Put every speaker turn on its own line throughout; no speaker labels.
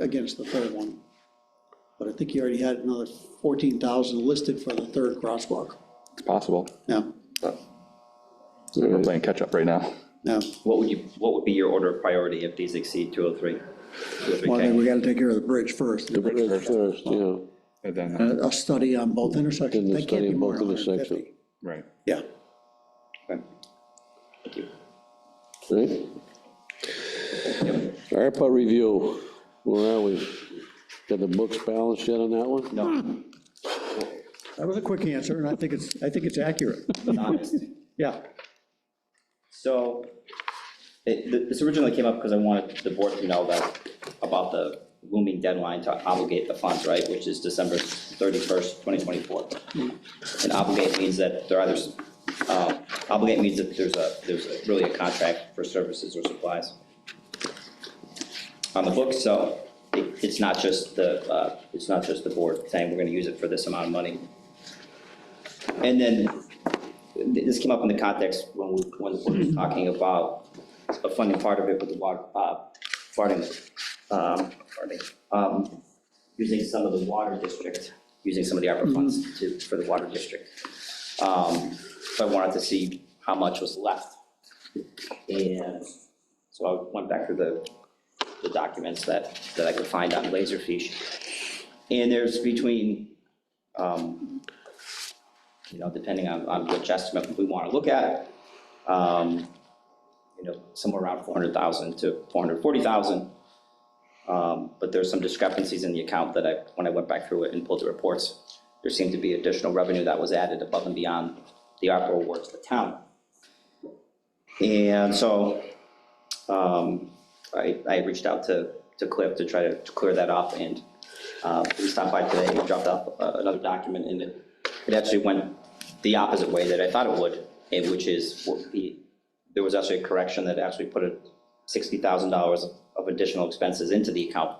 against the third one. But I think you already had another fourteen thousand listed for the third crosswalk.
It's possible.
No,
We're playing catch-up right now.
no,
What would you, what would be your order of priority if these exceed 203?
well, then we gotta take care of the bridge first. Uh,
The bridge first, yeah.
And Oh, then,
A a study on both intersections,
Then the
they can't
study
be
on
more
both
than hundred and fifty.
intersections.
right.
Yeah,
Okay. Thank you.
right? ARPA review, where are we? Got the books balanced yet on that one?
No,
that was a quick answer, and I think it's, I think it's accurate.
honest.
Yeah,
So, it- th- this originally came up because I wanted the board to know that, about the looming deadline to obligate the funds, right? Which is December 31st, 2024. And obligate means that there are, there's, uh, obligate means that there's a, there's a- really a contract for services or supplies on the books, so it- it's not just the, uh, it's not just the board saying we're going to use it for this amount of money. And then this came up in the context when we, when we were talking about a funding part of it with the water, uh, farting, um, farting, um, using some of the water district, using some of the ARPA funds to, for the water district. Um, so I wanted to see how much was left. And so I went back through the, the documents that, that I could find on Laserfish. And there's between, um, you know, depending on, on which estimate we want to look at, um, you know, somewhere around 400,000 to 440,000. Um, But there's some discrepancies in the account that I, when I went back through it and pulled the reports, there seemed to be additional revenue that was added above and beyond the ARPA awards to the town. And so um, I, I reached out to, to Cliff to try to clear that up, and uh, he stopped by today, and dropped off uh, another document, and it, it actually went the opposite way that I thought it would, eh, which is, what he- there was actually a correction that actually put a sixty thousand dollars of additional expenses into the account,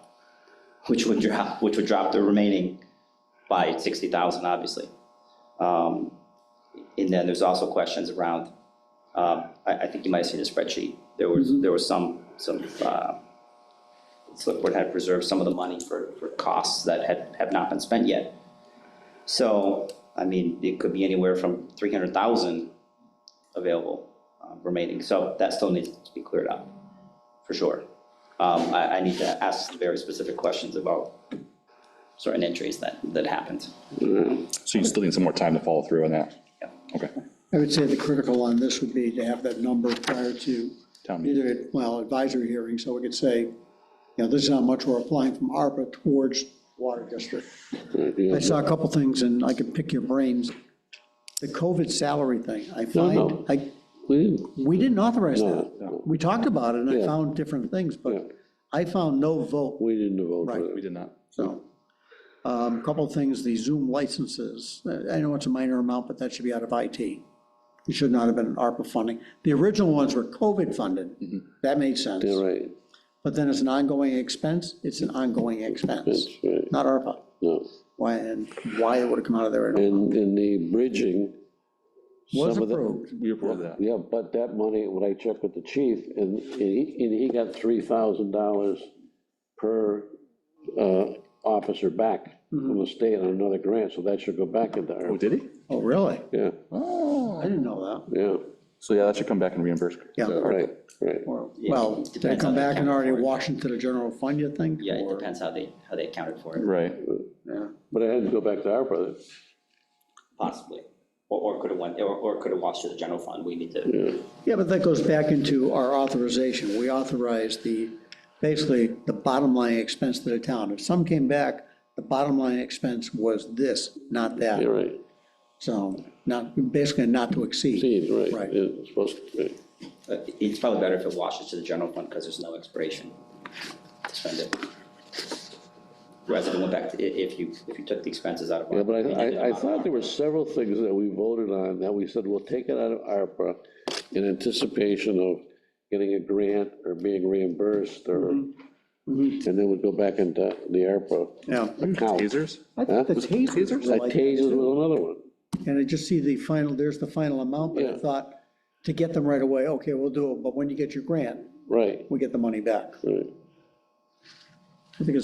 which would drop, which would drop the remaining by sixty thousand, obviously. Um, And then there's also questions around um, I, I think you might have seen the spreadsheet. There was, there was some, some, uh, select board had reserved some of the money for, for costs that had, have not been spent yet. So, I mean, it could be anywhere from three hundred thousand available uh, remaining, so that still needs to be cleared up, for sure. Um, I, I need to ask some very specific questions about certain entries that, that happened.
So you still need some more time to follow through on that?
Yeah.
Okay.
I would say the critical on this would be to have that number prior to
Town meeting.
either, well, advisory hearing, so we could say, you know, this is how much we're applying from ARPA towards water district. I saw a couple things, and I could pick your brains. The COVID salary thing, I
no.
find, I,
We-
we didn't authorize
No,
that. We talked about it, and I
Yeah.
found different things,
Yeah.
but I found no vote,
We didn't vote for
Right.
that.
We did not.
so. Um, Couple of things, the Zoom licenses, I know it's a minor amount, but that should be out of IT. It should not have been ARPA funding. The original ones were COVID funded, that made sense.
Mm-hmm. Yeah, right,
But then it's an ongoing expense, it's an ongoing expense,
that's right,
not ARPA.
no.
Why, and why it would have come out of there, I don't-
And, and the bridging.
was
some of the-
approved.
We approved that.
Yeah, but that money, when I checked with the chief, and, and he, and he got three thousand dollars per, uh, officer back from the state on another grant, so that should go back into
Oh,
our,
did he?
Oh, really?
yeah,
I didn't know that.
yeah,
Oh. So yeah, that should come back and reimburse.
Yeah.
right, right.
Or- Well, did it
Depends
come
on the
back and
account
already
for it.
wash into the general fund, you think?
Yeah, it
or-
depends how they, how they accounted for it,
Right.
Yeah.
But I had to go back to our brother.
possibly. Or, or could have went, or, or could have watched to the general fund, we need to,
Yeah, but that goes back into our authorization. We authorized the, basically, the bottom line expense to the town. If some came back, the bottom line expense was this, not
Yeah,
that.
right,
So not, basically not to exceed.
seed, right,
Right.
yeah, it's supposed to, right.
uh, it's probably better if it washes to the general fund, because there's no expiration to spend it. Rather than went back to, i- if you, if you took the expenses out of.
Yeah, but I,
and you did them
I, I
out of
thought there were several things that we voted on, that we said, we'll take it out of ARPA in anticipation of getting a grant or being reimbursed, or, and then we'd go back into the ARPA
Yeah.
account.
Tasers?
I think the
Huh?
tasers were
That
like that,
tasers
too.
was another one,
And I just see the final, there's the final amount, but I
Yeah.
thought, to get them right away, okay, we'll do it, but when you get your grant,
right,
we get the money back.
right.
I think it's